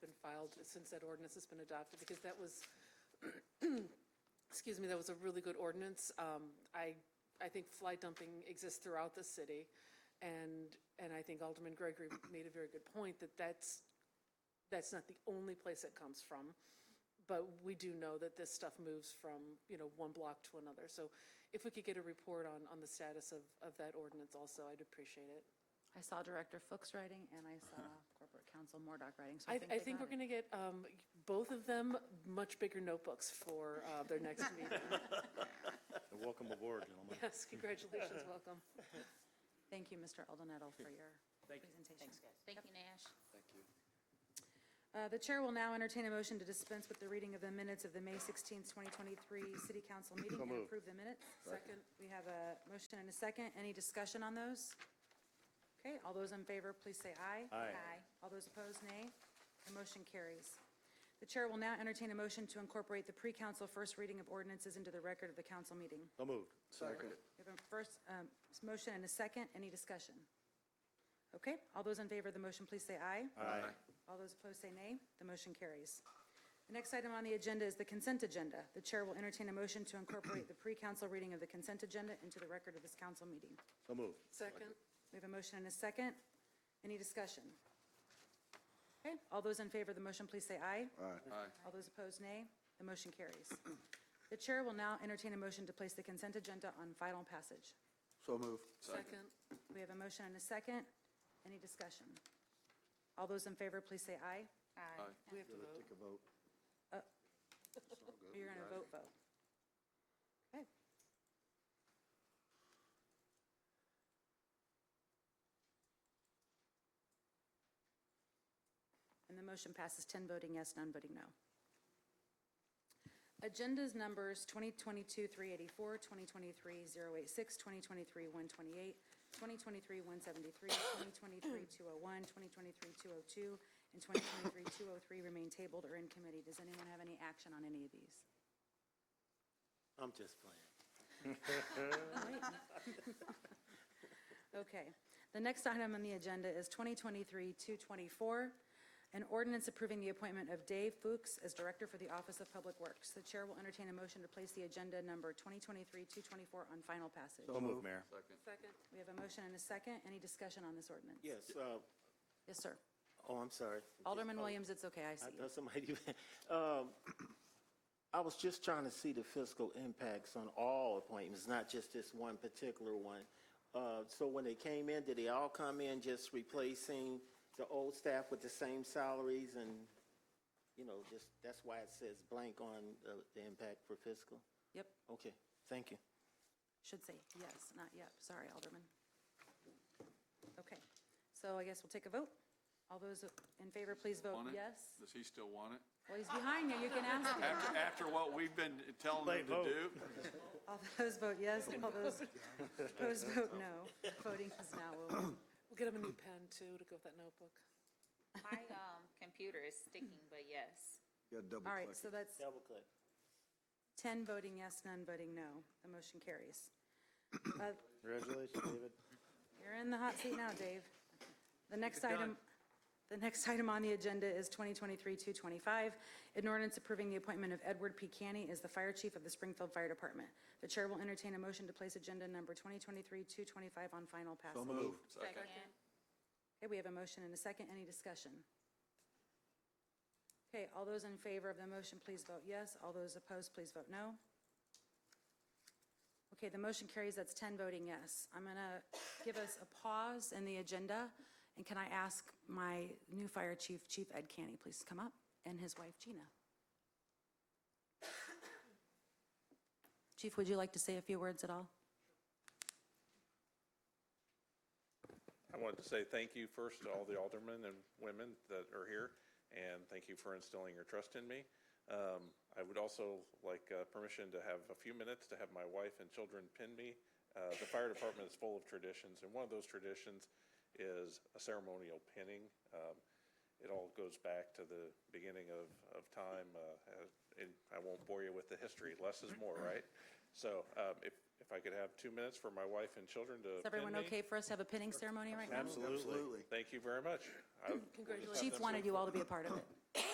filed since that ordinance has been adopted, because that was, excuse me, that was a really good ordinance. Um, I, I think fly dumping exists throughout the city, and, and I think Alderman Gregory made a very good point that that's, that's not the only place it comes from. But we do know that this stuff moves from, you know, one block to another. So if we could get a report on, on the status of, of that ordinance also, I'd appreciate it. I saw Director Fuchs writing, and I saw Corporate Counsel Mordock writing, so I I, think I they think got we're it. going to get um, both of them much bigger notebooks for uh, their next meeting. And Welcome aboard, gentlemen. Yes, congratulations, welcome. Thank you, Mr. Aldenettle, for your presentation. Thank you, Nash. Uh, The Chair will now entertain a motion to dispense with the reading of the minutes of the May 16th, 2023 City Council meeting and moved. approve the minutes. Second. We have a motion and a second. Any discussion on those? Okay, all those in favor, please say aye. Aye. All those opposed, nay. The motion carries. The Chair will now entertain a motion to incorporate the pre-council first reading of ordinances into the record of the council meeting. So moved. Second. We have a first um, motion and a second. Any discussion? Okay, all those in favor of the motion, please say aye. Aye. All those opposed say nay. The motion carries. The next item on the agenda is the consent agenda. The chair will entertain a motion to incorporate the pre-council reading of the consent agenda into the record of this council meeting. So moved. Second, We have a motion and a second. Any discussion? Okay, all those in favor of the motion, please say aye. Aye. All those opposed, nay. The motion carries. The chair will now entertain a motion to place the consent agenda on final passage. So moved. second, We have a motion and a second. Any discussion? All those in favor, please say aye. Aye. we have to vote. Take a vote. You're going to vote, vote. Okay. And the motion passes 10 voting yes, none voting no. Agendas numbers 2022-384, 2023-086, 2023-128, 2023-173, 2023-201, 2023-202, and 2023-203 remain tabled or in committee. Does anyone have any action on any of these? I'm just playing. Okay. The next item on the agenda is 2023-224, an ordinance approving the appointment of Dave Fuchs as Director for the Office of Public Works. The Chair will entertain a motion to place the agenda number 2023-224 on final passage. So moved, Mayor. Second, We have a motion and a second. Any discussion on this ordinance? Yes, uh, Yes, sir. oh, I'm sorry. Alderman Williams, it's okay, I see I you. thought somebody, um, I was just trying to see the fiscal impacts on all appointments, not just this one particular one. Uh, So when they came in, did they all come in just replacing the old staff with the same salaries and, you know, just, that's why it says blank on uh, the impact for fiscal? Yep, Okay, thank you. should say yes, not yep. Sorry, Alderman. Okay, so I guess we'll take a vote. All those in favor, please vote Want it? yes. Does he still want it? Well, he's behind you, you can ask him. After, after what we've been telling him to do? All those vote yes, all those opposed vote no. Voting is now over. we'll get him a new pen too, to go with that notebook. My, um, computer is sticking, but yes. All right, so that's Double click. 10 voting yes, none voting no. The motion carries. Uh, Congratulations, David. You're in the hot seat now, Dave. The next item, the next item on the agenda is 2023-225, an ordinance approving the appointment of Edward P. Canny as the Fire Chief of the Springfield Fire Department. The Chair will entertain a motion to place agenda number 2023-225 on final passage. Second. Okay, we have a motion and a second. Any discussion? Okay, all those in favor of the motion, please vote yes. All those opposed, please vote no. Okay, the motion carries. That's 10 voting yes. I'm going to give us a pause in the agenda. And can I ask my new fire chief, Chief Ed Canny, please to come up, and his wife Gina? Chief, would you like to say a few words at all? I wanted to say thank you first to all the aldermen and women that are here, and thank you for instilling your trust in me. Um, I would also like uh, permission to have a few minutes to have my wife and children pin me. Uh, The fire department is full of traditions, and one of those traditions is a ceremonial pinning. Um, It all goes back to the beginning of, of time, uh, uh, and I won't bore you with the history, less is more, right? So um, if, if I could have two minutes for my wife and children to Is everyone pin me. okay for us to have a pinning ceremony right now? Absolutely. Thank you very much. I- Congratulations. Chief wanted you all to be a part of it.